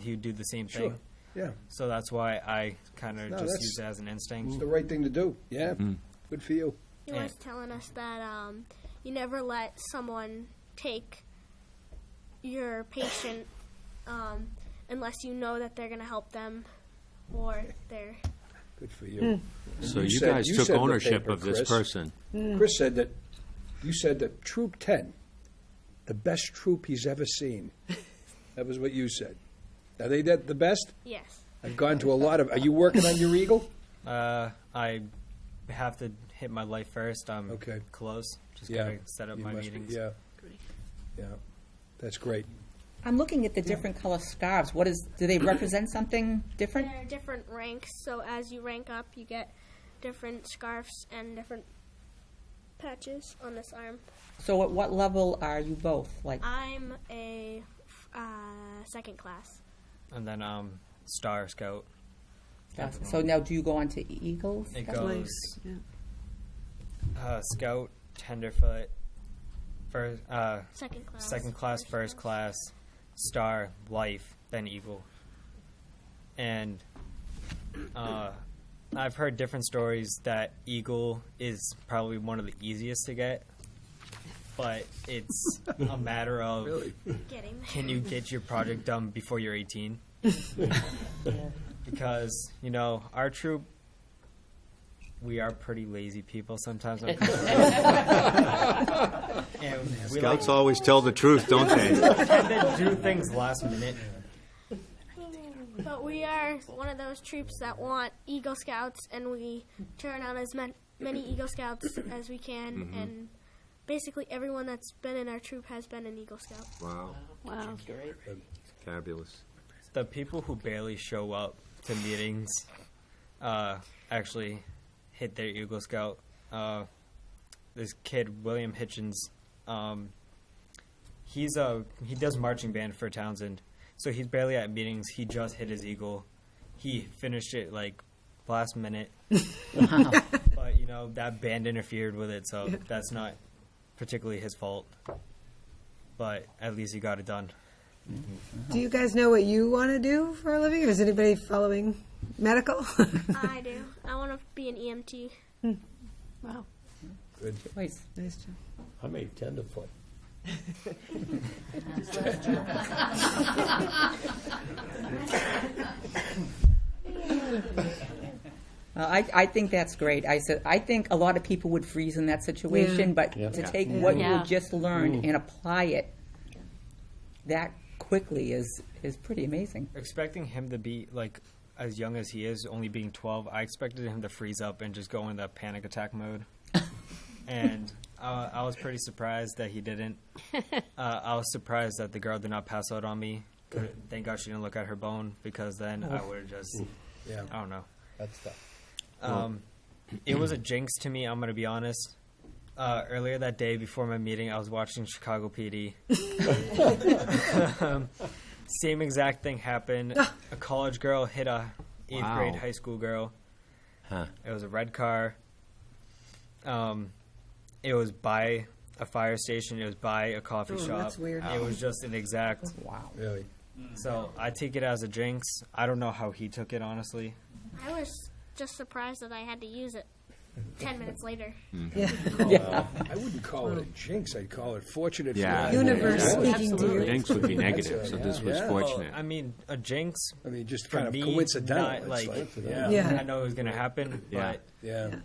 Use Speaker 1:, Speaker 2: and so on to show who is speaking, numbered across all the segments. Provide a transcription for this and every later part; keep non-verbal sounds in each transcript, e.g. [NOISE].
Speaker 1: he would do the same
Speaker 2: Sure,
Speaker 1: thing.
Speaker 2: yeah.
Speaker 1: So that's why I kind of
Speaker 2: No,
Speaker 1: just
Speaker 2: that's- Mm.
Speaker 1: use it as an
Speaker 2: It's
Speaker 1: instinct.
Speaker 2: the right thing to do, yeah.
Speaker 1: Mm-hmm.
Speaker 2: Good for you.
Speaker 3: He
Speaker 1: Yeah.
Speaker 3: was telling us that um, you never let someone take your patient um, unless you know that they're going to help them or they're.
Speaker 2: Good for you.
Speaker 4: So
Speaker 2: You
Speaker 4: you
Speaker 2: said-
Speaker 4: guys
Speaker 2: you
Speaker 4: took
Speaker 2: said the
Speaker 4: ownership
Speaker 2: paper,
Speaker 4: of this
Speaker 2: Chris.
Speaker 4: person.
Speaker 2: Chris said that, you said that Troop 10, the best troop he's ever seen. That was what you said. Are they that- the best?
Speaker 3: Yes.
Speaker 2: I've gone to a lot of, are you working on your Eagle?
Speaker 1: Uh, I have to hit my life first. I'm
Speaker 2: Okay.
Speaker 1: close. Just
Speaker 2: Yeah,
Speaker 1: gotta set up
Speaker 2: you
Speaker 1: my
Speaker 2: must be-
Speaker 1: meetings.
Speaker 2: Yeah, yeah. That's great.
Speaker 5: I'm looking at the different color scarves. What is, do they represent something different?
Speaker 3: There are different ranks, so as you rank up, you get different scarves and different patches on this arm.
Speaker 5: So at what level are you both? Like,
Speaker 3: I'm a uh, second class.
Speaker 1: And then um, Star Scout.
Speaker 5: so now do you go on to Eagles?
Speaker 1: It
Speaker 5: That's-
Speaker 1: goes uh, Scout, Tenderfoot, first, uh,
Speaker 3: Second class.
Speaker 1: second class, first class, star, life, then eagle. And uh, I've heard different stories that eagle is probably one of the easiest to get, but it's a matter of
Speaker 3: Getting there.
Speaker 1: can you get your project done before you're 18? because, you know, our troop, we are pretty lazy people sometimes. when it comes to- and we like
Speaker 4: Scouts always tell the truth, don't they?
Speaker 1: to do things last minute.
Speaker 3: But we are one of those troops that want Eagle Scouts, and we turn out as man- many Eagle Scouts as we can,
Speaker 1: Mm-hmm.
Speaker 3: and basically everyone that's been in our troop has been an Eagle Scout.
Speaker 4: Wow,
Speaker 6: Wow.
Speaker 4: fabulous.
Speaker 1: The people who barely show up to meetings uh, actually hit their Eagle Scout. Uh, this kid, William Hitchens, um, he's a he does marching band for Townsend, so he's barely at meetings. He just hit his Eagle. He finished it like last minute. but you know that band interfered with it, so that's not particularly his fault. But at least he got it done.
Speaker 7: Do you guys know what you want to do for a living? Or is anybody following medical? [LAUGHS]
Speaker 3: I do. I want to be an E EMT.
Speaker 6: Wow.
Speaker 5: Wait,
Speaker 7: nice job.
Speaker 8: I made tenderfoot.
Speaker 5: uh, I, I think that's great. I said, I think a lot of people would freeze in that situation, but
Speaker 8: Yeah.
Speaker 5: to take what you
Speaker 6: Yeah.
Speaker 5: just learned and apply it that quickly is, is pretty amazing.
Speaker 1: expecting him to be like as young as he is, only being 12, I expected him to freeze up and just go into panic attack mode. and uh, I was pretty surprised that he didn't. Uh, I was surprised that the girl did not pass out on me. Could- Thank God she didn't look at her bone because then I would have just,
Speaker 2: Yeah,
Speaker 1: I don't know.
Speaker 8: That's tough.
Speaker 1: Um, it was a jinx to me. I'm gonna be honest. Uh, earlier that day, before my meeting, I was watching Chicago PD. um, same exact thing happened. A college girl hit a eighth
Speaker 4: Wow.
Speaker 1: grade high school girl.
Speaker 4: Huh.
Speaker 1: It was a red car. Um, it was by a fire station. It was by a coffee
Speaker 7: Oh,
Speaker 1: shop.
Speaker 7: that's weird.
Speaker 1: It was just an exact.
Speaker 5: Wow.
Speaker 2: really.
Speaker 1: So I take it as a jinx. I don't know how he took it honestly.
Speaker 3: I was just surprised that I had to use it. Ten minutes later.
Speaker 2: I wouldn't call it a jinx, I'd call it fortunate. for
Speaker 4: Yeah.
Speaker 2: us.
Speaker 7: Universe
Speaker 2: Yeah.
Speaker 7: speaking to you.
Speaker 4: Jinx would be negative, so this was
Speaker 2: Yeah.
Speaker 4: fortunate.
Speaker 1: I mean, a jinx
Speaker 2: I mean, just
Speaker 1: For
Speaker 2: kind of
Speaker 1: me,
Speaker 2: coincidental.
Speaker 1: not
Speaker 2: it's
Speaker 1: like-
Speaker 2: yeah,
Speaker 7: Yeah.
Speaker 1: I know it was gonna happen,
Speaker 4: Yeah.
Speaker 2: yeah.
Speaker 1: but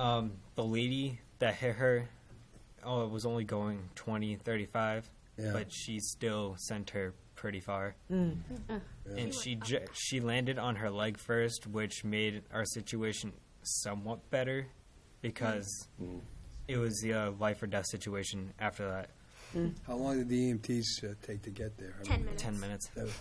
Speaker 1: um, the lady that hit her, oh, it was only going 20, 35,
Speaker 2: Yeah.
Speaker 1: but she still sent her pretty far.
Speaker 6: Mm.
Speaker 1: And she ju- she landed on her leg first, which made our situation somewhat better because it was the uh, life or death situation after that.
Speaker 2: How long did the EMTs uh, take to get there? I
Speaker 3: Ten
Speaker 2: mean,
Speaker 3: minutes.
Speaker 1: 10 minutes.
Speaker 2: That was-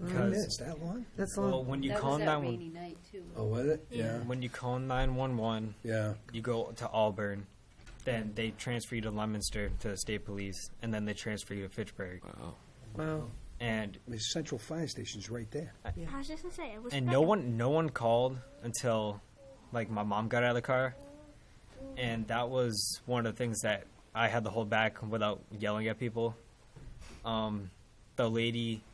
Speaker 2: Ten
Speaker 1: Because
Speaker 2: minutes, that long?
Speaker 7: That's
Speaker 1: well,
Speaker 7: long.
Speaker 1: when you
Speaker 6: That
Speaker 1: call
Speaker 6: was that
Speaker 1: 911,
Speaker 6: rainy night, too.
Speaker 2: Oh, was it? Yeah,
Speaker 1: when you call 911,
Speaker 2: yeah.
Speaker 1: you go to Auburn,
Speaker 6: Mm.
Speaker 1: then they transfer you to Leominster to the state police, and then they transfer you to Fitchburg.
Speaker 7: Wow.
Speaker 1: And
Speaker 2: I mean, Central Fire Station's right there.
Speaker 3: I was just gonna say it was.
Speaker 1: and no
Speaker 3: better.
Speaker 1: one no one called until like my mom got out of the car. And that was one of the things that I had to hold back without yelling at people. Um, the lady